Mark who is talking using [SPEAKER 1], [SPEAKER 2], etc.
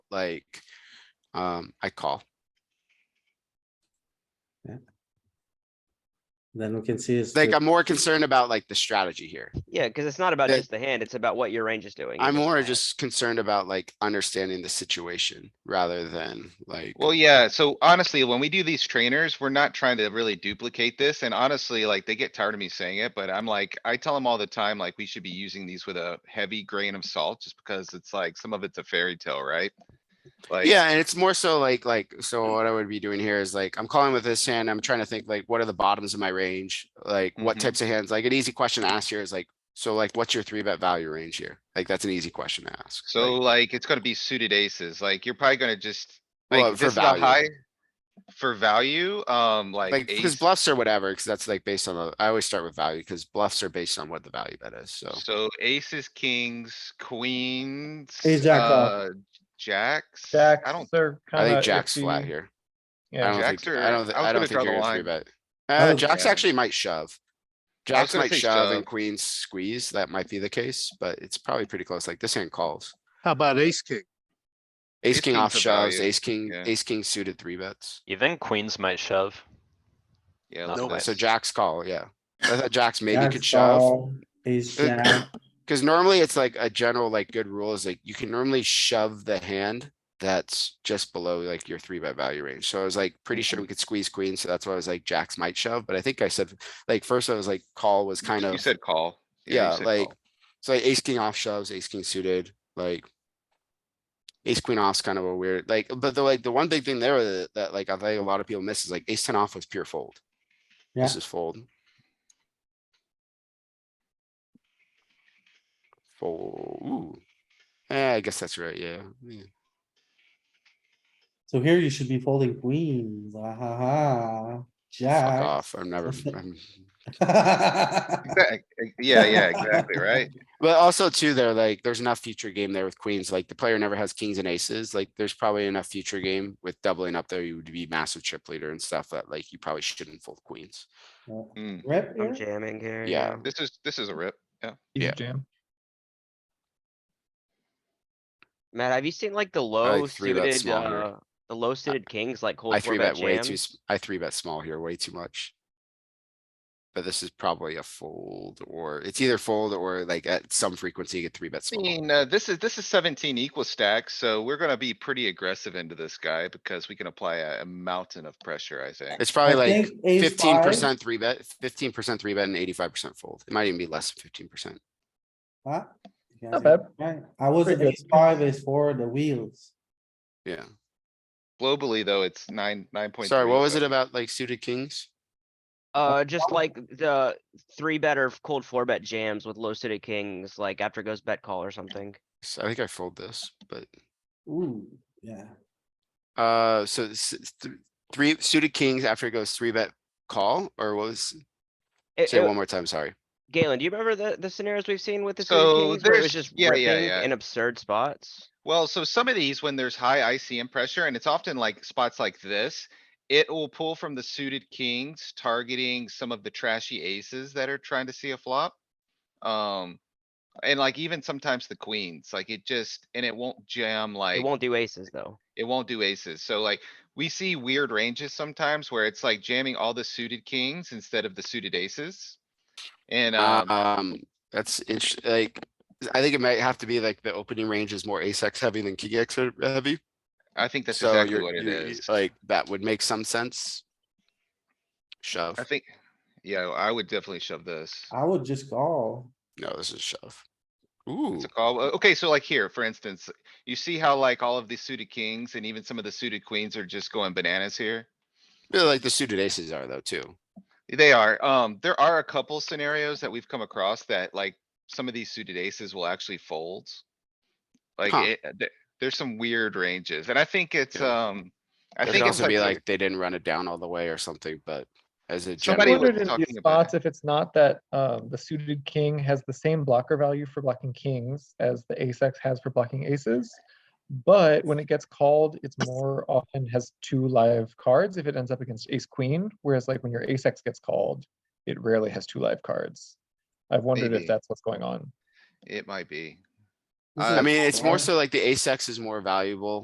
[SPEAKER 1] like, um, I call.
[SPEAKER 2] Then we can see is.
[SPEAKER 1] Like,
[SPEAKER 2] the-
[SPEAKER 1] I'm more concerned about like the strategy here.
[SPEAKER 3] Yeah, because it's not about
[SPEAKER 1] That-
[SPEAKER 3] just the hand, it's about what your range is doing.
[SPEAKER 1] I'm
[SPEAKER 3] It's
[SPEAKER 1] more
[SPEAKER 3] about-
[SPEAKER 1] just concerned about like understanding the situation rather than like.
[SPEAKER 4] Well, yeah, so honestly, when we do these trainers, we're not trying to really duplicate this, and honestly, like, they get tired of me saying it, but I'm like, I tell them all the time, like, we should be using these with a heavy grain of salt, just because it's like, some of it's a fairy tale, right? Like, Mm.
[SPEAKER 1] Yeah, and it's more so like, like, so what I would be doing here is like, I'm calling with this hand, I'm trying to think like, what are the bottoms of my range? Like, what
[SPEAKER 4] Mhm.
[SPEAKER 1] types of hands? Like, an easy question to ask here is like, so like, what's your three bet value range here? Like, that's an easy question to ask.
[SPEAKER 4] so
[SPEAKER 1] like,
[SPEAKER 4] like, it's gonna be suited aces, like, you're probably gonna just,
[SPEAKER 1] Well,
[SPEAKER 4] like,
[SPEAKER 1] for
[SPEAKER 4] this is a
[SPEAKER 1] value.
[SPEAKER 4] high. For value, um, like.
[SPEAKER 1] Like, because
[SPEAKER 4] ace-
[SPEAKER 1] bluffs or whatever, because that's like based on, the- I always start with value, because bluffs are based on what the value bet is, so.
[SPEAKER 4] So aces, kings, queens.
[SPEAKER 5] Ace jack off.
[SPEAKER 4] uh, Jacks.
[SPEAKER 5] Jack,
[SPEAKER 4] I don't,
[SPEAKER 5] they're
[SPEAKER 1] I
[SPEAKER 5] kinda
[SPEAKER 1] think Jack's
[SPEAKER 5] iffy.
[SPEAKER 1] flat here. I
[SPEAKER 5] Yeah,
[SPEAKER 1] don't
[SPEAKER 4] Jacks
[SPEAKER 1] think, I
[SPEAKER 4] are-
[SPEAKER 1] don't, thi-
[SPEAKER 4] I was
[SPEAKER 1] I
[SPEAKER 4] gonna
[SPEAKER 1] don't think
[SPEAKER 4] draw the
[SPEAKER 1] you're gonna three
[SPEAKER 4] line.
[SPEAKER 1] bet.
[SPEAKER 2] I
[SPEAKER 1] Uh,
[SPEAKER 2] would-
[SPEAKER 1] Jacks actually might shove. Jacks
[SPEAKER 4] gonna
[SPEAKER 1] might
[SPEAKER 4] say
[SPEAKER 1] shove and
[SPEAKER 4] shove.
[SPEAKER 1] queens squeeze, that might be the case, but it's probably pretty close, like this hand calls.
[SPEAKER 6] How about ace king?
[SPEAKER 1] Ace
[SPEAKER 4] Ace
[SPEAKER 1] king
[SPEAKER 4] king's
[SPEAKER 1] off
[SPEAKER 4] a
[SPEAKER 1] shoves,
[SPEAKER 4] value,
[SPEAKER 1] ace king,
[SPEAKER 4] yeah.
[SPEAKER 1] ace king suited three bets.
[SPEAKER 7] Even queens might shove.
[SPEAKER 4] yeah.
[SPEAKER 7] No
[SPEAKER 4] look at
[SPEAKER 1] Okay,
[SPEAKER 7] way.
[SPEAKER 4] that.
[SPEAKER 1] So jacks call, yeah. I thought jacks maybe
[SPEAKER 2] jack
[SPEAKER 1] could shove,
[SPEAKER 2] call, Ace
[SPEAKER 1] Uh,
[SPEAKER 2] jack,
[SPEAKER 1] cuz normally it's like a general like good rule is like you can normally shove the hand. That's just below like your three bet value range. So I was like pretty sure we could squeeze queens, so that's why I was like jacks might shove, but I think I said like first I was like call was kind
[SPEAKER 4] You
[SPEAKER 1] of.
[SPEAKER 4] said call. you
[SPEAKER 1] Yeah,
[SPEAKER 4] said
[SPEAKER 1] like,
[SPEAKER 4] call.
[SPEAKER 1] so like ace king off shoves, ace king suited, like. Ace queen off's kind of a weird, like, but the like, the one big thing there that, that like I think a lot of people miss is like ace ten off was pure fold. This
[SPEAKER 2] Yeah.
[SPEAKER 1] is fold. Fold, ooh. Eh, I guess that's right, yeah. yeah.
[SPEAKER 2] so here you should be folding queens, ah ha ha,
[SPEAKER 1] Fuck
[SPEAKER 2] jack.
[SPEAKER 1] off, I'm never, I'm.
[SPEAKER 4] Exact- ex- Yeah, yeah, exactly, right?
[SPEAKER 1] But also too, there like, there's enough future game there with queens, like the player never has kings and aces, like there's probably enough future game with doubling up there, you would be massive chip leader and stuff that like you probably shouldn't fold queens.
[SPEAKER 4] Mm,
[SPEAKER 2] Rep
[SPEAKER 3] I'm
[SPEAKER 2] here?
[SPEAKER 3] jamming here.
[SPEAKER 1] Yeah.
[SPEAKER 4] This is, this is a rip.
[SPEAKER 5] easy
[SPEAKER 1] Yeah.
[SPEAKER 5] jam.
[SPEAKER 3] Matt, have you seen like the low
[SPEAKER 1] three bet
[SPEAKER 3] suited,
[SPEAKER 1] small here.
[SPEAKER 3] uh, the low suited kings like cold
[SPEAKER 1] I
[SPEAKER 3] four
[SPEAKER 1] three
[SPEAKER 3] bet
[SPEAKER 1] bet way too,
[SPEAKER 3] jams?
[SPEAKER 1] s- I three bet small here way too much. But this is probably a fold or it's either fold or like at some frequency you get three bet
[SPEAKER 4] I
[SPEAKER 1] small.
[SPEAKER 4] mean, uh, this is, this is seventeen equal stacks, so we're gonna be pretty aggressive into this guy because we can apply a a mountain of pressure, I think.
[SPEAKER 1] It's probably like
[SPEAKER 2] ace
[SPEAKER 1] fifteen
[SPEAKER 2] five,
[SPEAKER 1] percent three bet, fifteen percent three bet and eighty-five percent fold. It might even be less than fifteen percent.
[SPEAKER 2] huh? You
[SPEAKER 5] Not
[SPEAKER 2] guys are right. I was
[SPEAKER 5] Pretty good.
[SPEAKER 2] ace five, ace four, the wheels.
[SPEAKER 1] Yeah.
[SPEAKER 4] Globally, though, it's nine, nine point.
[SPEAKER 1] Sorry, what was it about like suited kings?
[SPEAKER 3] Uh, just like the three better cold four bet jams with low suited kings, like after it goes bet call or something.
[SPEAKER 1] So I think I fold this, but
[SPEAKER 2] Ooh, yeah.
[SPEAKER 1] Uh, so this is th- three suited kings after it goes three bet call or what was,
[SPEAKER 3] It-
[SPEAKER 1] say it
[SPEAKER 3] it-
[SPEAKER 1] one more time, sorry.
[SPEAKER 3] Eh, Galen, do you remember the, the scenarios we've seen with the
[SPEAKER 4] So
[SPEAKER 3] suited kings where it was
[SPEAKER 4] there's-
[SPEAKER 3] just
[SPEAKER 4] yeah, yeah,
[SPEAKER 3] ripping
[SPEAKER 4] yeah.
[SPEAKER 3] in absurd spots?
[SPEAKER 4] Well, so some of these, when there's high ICM pressure, and it's often like spots like this, it will pull from the suited kings, targeting some of the trashy aces that are trying to see a flop. Um, and like even sometimes the queens, like it just, and it won't jam like,
[SPEAKER 3] It won't do aces though.
[SPEAKER 4] it won't do aces. So like, we see weird ranges sometimes where it's like jamming all the suited kings instead of the suited aces. And, um,
[SPEAKER 1] Um, that's interesting, like, I think it might have to be like the opening range is more ace X heavy than king X heavy.
[SPEAKER 4] I think that's
[SPEAKER 1] So
[SPEAKER 4] exactly
[SPEAKER 1] you're,
[SPEAKER 4] what it
[SPEAKER 1] you're-
[SPEAKER 4] is.
[SPEAKER 1] like, that would make some sense. Shove.
[SPEAKER 4] I think, yeah, I would definitely shove this.
[SPEAKER 2] I would just call.
[SPEAKER 1] No, this is shove. Ooh,
[SPEAKER 4] It's a call. Uh, Okay, so like here, for instance, you see how like all of the suited kings and even some of the suited queens are just going bananas here?
[SPEAKER 1] yeah, like the suited aces are though, too.
[SPEAKER 4] They are. Um, there are a couple scenarios that we've come across that like some of these suited aces will actually fold. Like
[SPEAKER 1] Huh.
[SPEAKER 4] it, th- there's some weird ranges and I think it's,
[SPEAKER 1] Yeah.
[SPEAKER 4] um, I
[SPEAKER 1] It could
[SPEAKER 4] think it's
[SPEAKER 1] also be
[SPEAKER 4] like,
[SPEAKER 1] like, they didn't run it down all the way or something, but as a
[SPEAKER 5] I
[SPEAKER 4] Somebody
[SPEAKER 1] general.
[SPEAKER 5] wondered
[SPEAKER 4] was
[SPEAKER 5] in
[SPEAKER 4] talking
[SPEAKER 5] these
[SPEAKER 4] about it.
[SPEAKER 5] spots if it's not that, um, the suited king has the same blocker value for blocking kings as the ace X has for blocking aces. But when it gets called, it's more often has two live cards if it ends up against ace queen, whereas like when your ace X gets called, it rarely has two live cards. I've wondered
[SPEAKER 4] Maybe.
[SPEAKER 5] if that's what's going on.
[SPEAKER 4] it might be.
[SPEAKER 2] This
[SPEAKER 4] Uh,
[SPEAKER 2] is
[SPEAKER 1] I mean, it's more
[SPEAKER 2] wild.
[SPEAKER 1] so like the ace X is more valuable